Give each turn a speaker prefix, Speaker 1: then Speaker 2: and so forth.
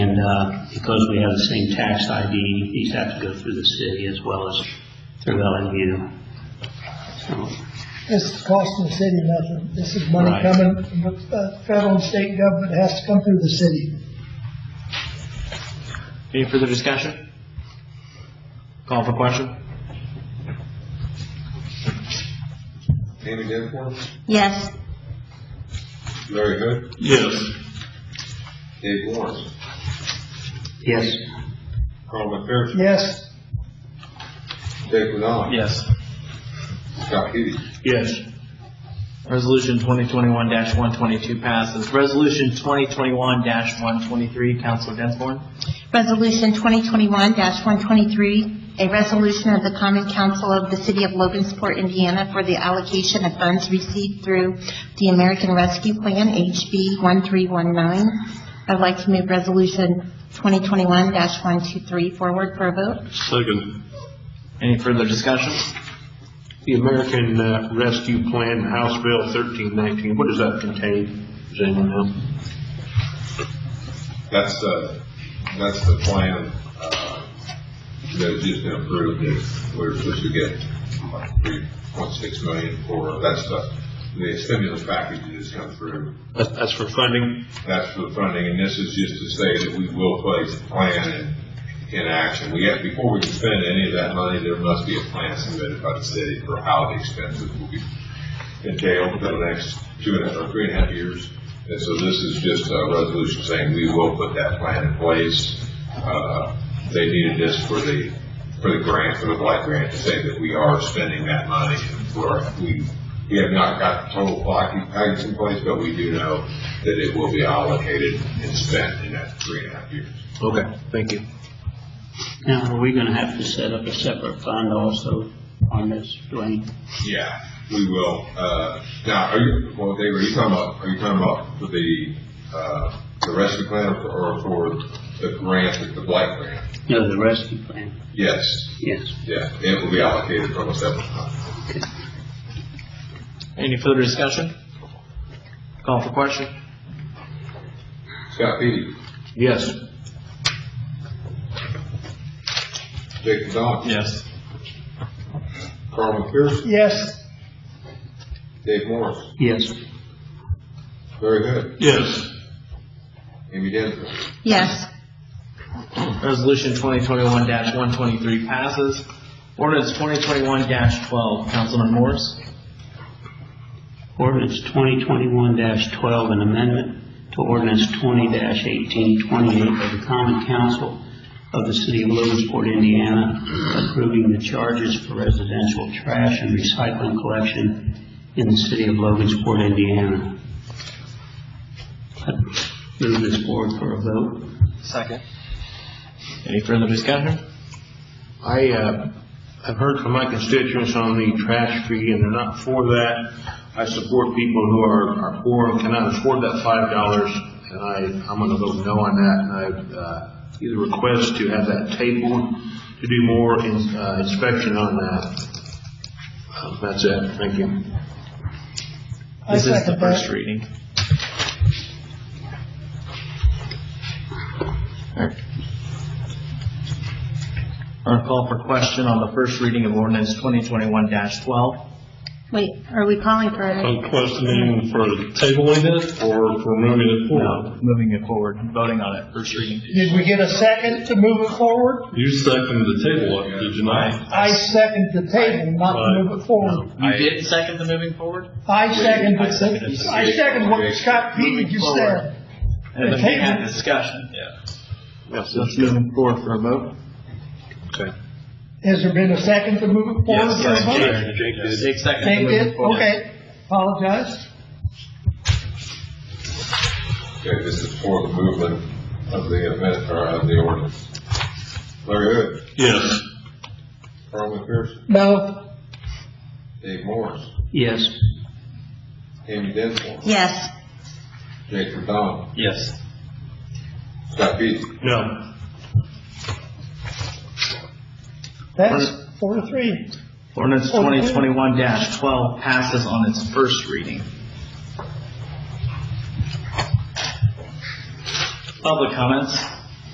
Speaker 1: And uh, because we have the same tax ID, these have to go through the city as well as through LMU. So,
Speaker 2: This is costing the city nothing. This is money
Speaker 1: Right.
Speaker 2: coming from the uh, federal and state government. It has to come through the city.
Speaker 3: Any further discussion? Call for question?
Speaker 4: Amy Danforth,
Speaker 5: Yes.
Speaker 4: Larry Hood,
Speaker 3: Yes.
Speaker 4: Dave Lawrence,
Speaker 1: Yes,
Speaker 4: Carl McPherson,
Speaker 2: Yes,
Speaker 4: Dave Winona,
Speaker 3: Yes.
Speaker 4: Scott Hubie.
Speaker 3: Yes. Resolution 2021-122 passes. Resolution 2021-123, Counselor Densmore.
Speaker 5: Resolution 2021-123, a resolution of the Common Council of the City of Logansport, Indiana, for the allocation of funds received through the American Rescue Plan, HB 1319. I'd like to move Resolution 2021-123 forward for a vote.
Speaker 6: Second.
Speaker 3: Any further discussion?
Speaker 6: The American uh, Rescue Plan, House Bill 1319, what does that contain? Does anyone know?
Speaker 4: That's the, that's the plan, uh, that just been approved, and we're supposed to get like three point six million for, that's the, the stimulus package that has come through.
Speaker 6: That's that's for funding?
Speaker 4: That's for the funding, and this is just to say that we will place a plan in, in action. We have, before we can spend any of that money, there must be a plan submitted by the city for how the expenses will be entailed for the next two and a half, or three and a half years. And so this is just a resolution saying we will put that plan in place. Uh, they needed this for the, for the grant, for the blight grant, to say that we are spending that money. We're, we, we have not got the total block package in place, but we do know that it will be allocated and spent in that three and a half years.
Speaker 3: Okay, thank you.
Speaker 1: now, are we going to have to set up a separate fund also on this, Dwayne?
Speaker 4: Yeah, we will. Uh, now, are you, well, Dave, are you talking about, are you talking about for the, uh, the rescue plan or- or for the grant, the blight grant?
Speaker 1: No, the rescue plan,
Speaker 4: Yes,
Speaker 1: yes.
Speaker 4: yeah, it will be allocated from a separate fund.
Speaker 3: Any further discussion? Call for question?
Speaker 4: Scott Peet,
Speaker 6: Yes.
Speaker 4: Jake McDonald.
Speaker 3: Yes.
Speaker 4: Carl McPherson,
Speaker 2: yes,
Speaker 4: Dave Morris,
Speaker 1: Yes,
Speaker 4: Larry Hood,
Speaker 6: Yes.
Speaker 4: Amy Dennis,
Speaker 5: Yes.
Speaker 3: Resolution 2021-123 passes. Ordinance 2021-12, Councilman Morris.
Speaker 1: ordinance 2021-12, an amendment to ordinance 20-1828 of the Common Council of the City of Lewisport, Indiana, approving the charges for residential trash and recycling collection in the City of Logansport, Indiana. Move this forward for a vote.
Speaker 3: Second. Any further discussion?
Speaker 6: I, uh, I've heard from my constituents on the trash fee, and they're not for that. I support people who are, are poor and cannot afford that five dollars, and I, I'm gonna vote no on that, and I, uh, either request to have that tabled, to do more in, uh, inspection on that. Uh, That's it, thank you.
Speaker 2: I
Speaker 3: This is the
Speaker 2: second
Speaker 3: first
Speaker 2: that.
Speaker 3: reading. Our call for question on the first reading of ordinance 2021-12.
Speaker 5: Wait, are we calling for a...
Speaker 7: I'm questioning for tabling it or for moving it forward.
Speaker 3: No, moving it forward, voting on it, first reading.
Speaker 2: Did we get a second to move it forward?
Speaker 7: You seconded the table, it, did you not?
Speaker 2: I second the table, not to move it forward.
Speaker 3: You didn't second the moving forward?
Speaker 2: I second,
Speaker 3: I second it.
Speaker 2: I second what Scott Peet just said.
Speaker 3: And then we had
Speaker 2: Table.
Speaker 3: discussion.
Speaker 6: Yes,
Speaker 3: So it's moving forward for a vote?
Speaker 6: okay.
Speaker 2: Has there been a second to move it forward? for a vote?
Speaker 3: Jake seconded
Speaker 2: They
Speaker 3: the moving
Speaker 2: did,
Speaker 3: forward.
Speaker 2: okay. Apologize.
Speaker 4: okay, this is for the movement of the event, or of the ordinance. Larry Hood,
Speaker 7: Yes.
Speaker 4: Carl McPherson,
Speaker 2: No,
Speaker 4: Dave Morris,
Speaker 1: Yes,
Speaker 4: Amy Dennis,
Speaker 5: Yes.
Speaker 4: Jake McDonald,
Speaker 3: Yes.
Speaker 4: Scott Peet,
Speaker 6: No.
Speaker 2: that's four to three.
Speaker 3: Ordinance twenty twenty-one twelve passes on its first reading. Public comments?